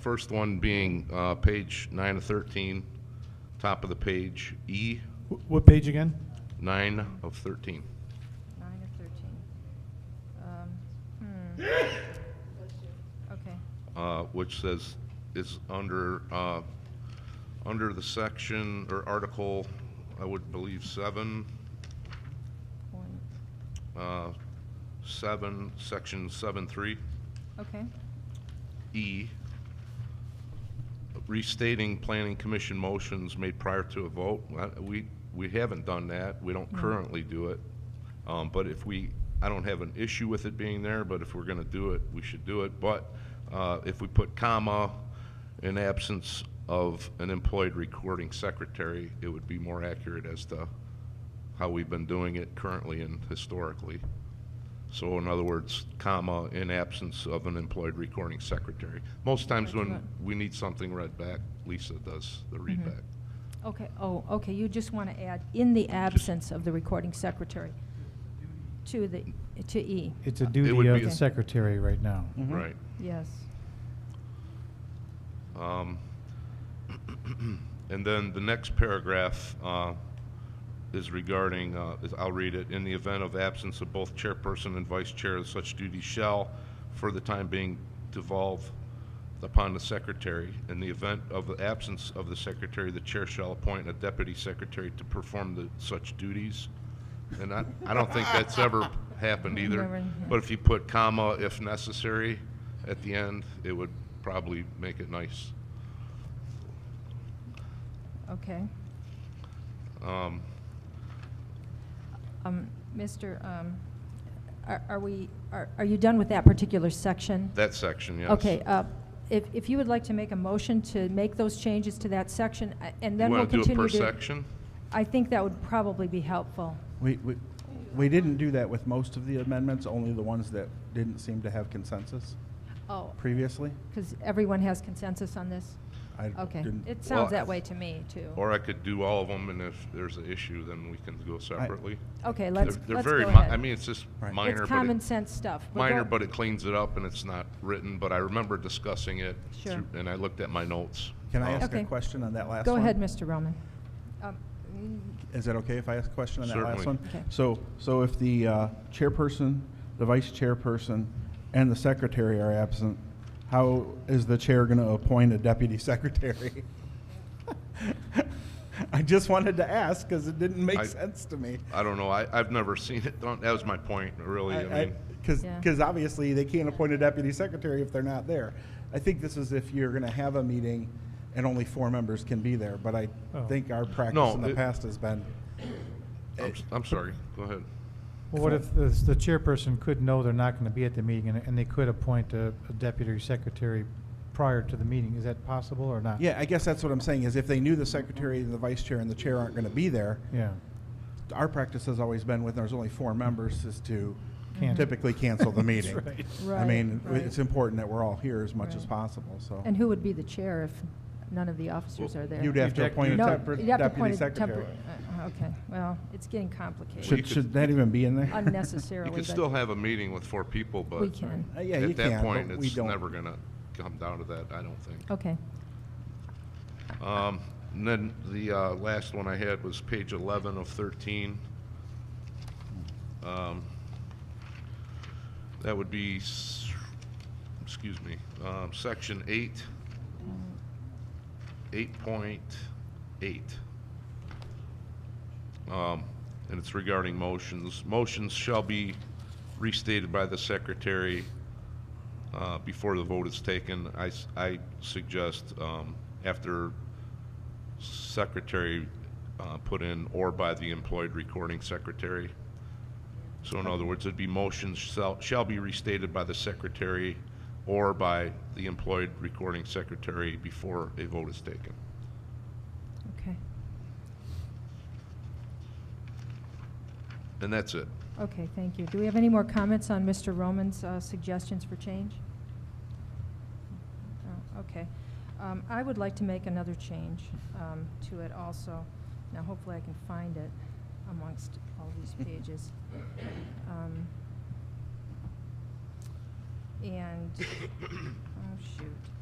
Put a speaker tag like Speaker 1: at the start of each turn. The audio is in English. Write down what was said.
Speaker 1: First one being uh, page 9 of 13, top of the page, E,
Speaker 2: Wh- What page again?
Speaker 1: 9 of 13.
Speaker 3: Nine or thirteen? Um, hmm. Okay,
Speaker 1: uh, which says, is under, uh, under the section or article, I would believe seven,
Speaker 3: point,
Speaker 1: uh, seven, section seven three,
Speaker 3: okay,
Speaker 1: E, restating planning commission motions made prior to a vote. Uh, We, we haven't done that. We don't currently do it. Um, but if we, I don't have an issue with it being there, but if we're gonna do it, we should do it. But, uh, if we put comma in absence of an employed recording secretary, it would be more accurate as to how we've been doing it currently and historically. So in other words, comma, in absence of an employed recording secretary. Most times when
Speaker 3: That's
Speaker 1: we need something read back, Lisa does the read back.
Speaker 3: okay, oh, okay, you just want to add, in the absence of the recording secretary, to the, to E,
Speaker 2: It's a
Speaker 1: would
Speaker 2: duty of
Speaker 1: be- Mm-hmm.
Speaker 2: the secretary right now.
Speaker 1: Right.
Speaker 3: yes.
Speaker 1: Um, And then the next paragraph uh, is regarding, uh, is- I'll read it, "In the event of absence of both chairperson and vice chair, such duties shall, for the time being, devolve upon the secretary. In the event of the absence of the secretary, the chair shall appoint a deputy secretary to perform the such duties." And I, I don't think that's ever happened either.
Speaker 3: Never, yeah.
Speaker 1: But if you put comma, if necessary, at the end, it would probably make it nice.
Speaker 3: Okay.
Speaker 1: Um,
Speaker 3: Um, Mr., um, are are we, are are you done with that particular section?
Speaker 1: That section, yes.
Speaker 3: Okay, uh, if if you would like to make a motion to make those changes to that section, I- and then we'll
Speaker 1: You
Speaker 3: continue to...
Speaker 1: want to do it per section?
Speaker 3: I think that would probably be helpful.
Speaker 4: We, we, we didn't do that with most of the amendments, only the ones that didn't seem to have consensus
Speaker 3: Oh,
Speaker 4: previously.
Speaker 3: because everyone has consensus on this?
Speaker 4: I
Speaker 3: Okay,
Speaker 4: didn't-
Speaker 3: it
Speaker 1: Well,
Speaker 3: sounds that way to me, too.
Speaker 1: Or I could do all of them, and if there's an issue, then we can go separately.
Speaker 3: Okay,
Speaker 1: They're-
Speaker 3: let's,
Speaker 1: they're
Speaker 3: let's
Speaker 1: very
Speaker 3: go
Speaker 1: mi-
Speaker 3: ahead.
Speaker 1: I mean, it's just
Speaker 4: Right. It's
Speaker 1: minor,
Speaker 3: It's
Speaker 1: but
Speaker 3: common
Speaker 1: it,
Speaker 3: sense stuff. We're
Speaker 1: minor,
Speaker 3: go-
Speaker 1: but it cleans it up, and it's not written, but I remember discussing it.
Speaker 3: Sure.
Speaker 1: through- And I looked at my notes.
Speaker 4: Can I
Speaker 1: Uh,
Speaker 4: ask
Speaker 3: Okay.
Speaker 4: a question on that last
Speaker 3: Go
Speaker 4: one?
Speaker 3: ahead, Mr. Roman. Um,
Speaker 4: Is that okay if I ask a question on that last
Speaker 1: Certainly.
Speaker 4: one?
Speaker 3: Okay.
Speaker 4: So, so if the uh, chairperson, the vice chairperson, and the secretary are absent, how is the chair going to appoint a deputy secretary? I just wanted to ask because it didn't
Speaker 1: I-
Speaker 4: make sense to me.
Speaker 1: I don't know, I, I've never seen it done, that was my point, really, I mean,
Speaker 4: Because,
Speaker 3: Yeah.
Speaker 4: because obviously, they can't appoint a deputy secretary if they're not there. I think this is if you're gonna have a meeting and only four members can be there, but I
Speaker 2: Oh.
Speaker 4: think our
Speaker 1: No,
Speaker 4: practice in
Speaker 1: it-
Speaker 4: the past has been,
Speaker 1: I'm, s- I'm sorry, go ahead.
Speaker 2: Well, what if the the chairperson could know they're not going to be at the meeting and- and they could appoint a a deputy secretary prior to the meeting? Is that possible or not?
Speaker 4: yeah, I guess that's what I'm saying, is if they knew the secretary and the vice chair and the chair aren't gonna be there,
Speaker 2: Yeah.
Speaker 4: our practice has always been when there's only four members is to
Speaker 2: Cancel.
Speaker 4: typically cancel the
Speaker 2: That's
Speaker 4: meeting.
Speaker 2: right.
Speaker 4: I
Speaker 3: Right,
Speaker 4: mean,
Speaker 3: right.
Speaker 4: it's important that we're all here as much as
Speaker 3: Right.
Speaker 4: possible,
Speaker 1: Oh.
Speaker 4: so.
Speaker 3: And who would be the chair if none of the officers are there?
Speaker 4: You'd have to
Speaker 2: You'd
Speaker 4: appoint a
Speaker 2: have-
Speaker 3: No,
Speaker 4: temper-
Speaker 3: you'd have to
Speaker 4: deputy
Speaker 3: appoint a
Speaker 4: secretary.
Speaker 3: tempor- uh, uh, Okay, well, it's getting complicated
Speaker 4: Should, should that even be in there?
Speaker 3: unnecessarily.
Speaker 1: You could
Speaker 3: but-
Speaker 1: still have a meeting with four people, but.
Speaker 3: We can.
Speaker 4: Uh, yeah, you
Speaker 1: At that
Speaker 4: can,
Speaker 1: point,
Speaker 4: but we
Speaker 1: it's
Speaker 4: don't.
Speaker 1: never gonna come down to that, I don't think.
Speaker 3: Okay,
Speaker 1: Um, And then the uh, last one I had was page 11 of 13. Um, That would be, s- excuse me, um, section 8, 8.8. Um, And it's regarding motions. Motions shall be restated by the secretary uh, before the vote is taken. I s- I suggest um, after secretary uh, put in or by the employed recording secretary. So in other words, it'd be motions shall, shall be restated by the secretary or by the employed recording secretary before a vote is taken.
Speaker 3: okay,
Speaker 1: And that's it.
Speaker 3: okay, thank you. Do we have any more comments on Mr. Roman's uh, suggestions for change? Oh, Okay. Um, I would like to make another change um, to it also. Now hopefully I can find it amongst all these pages. Um, And, oh shoot.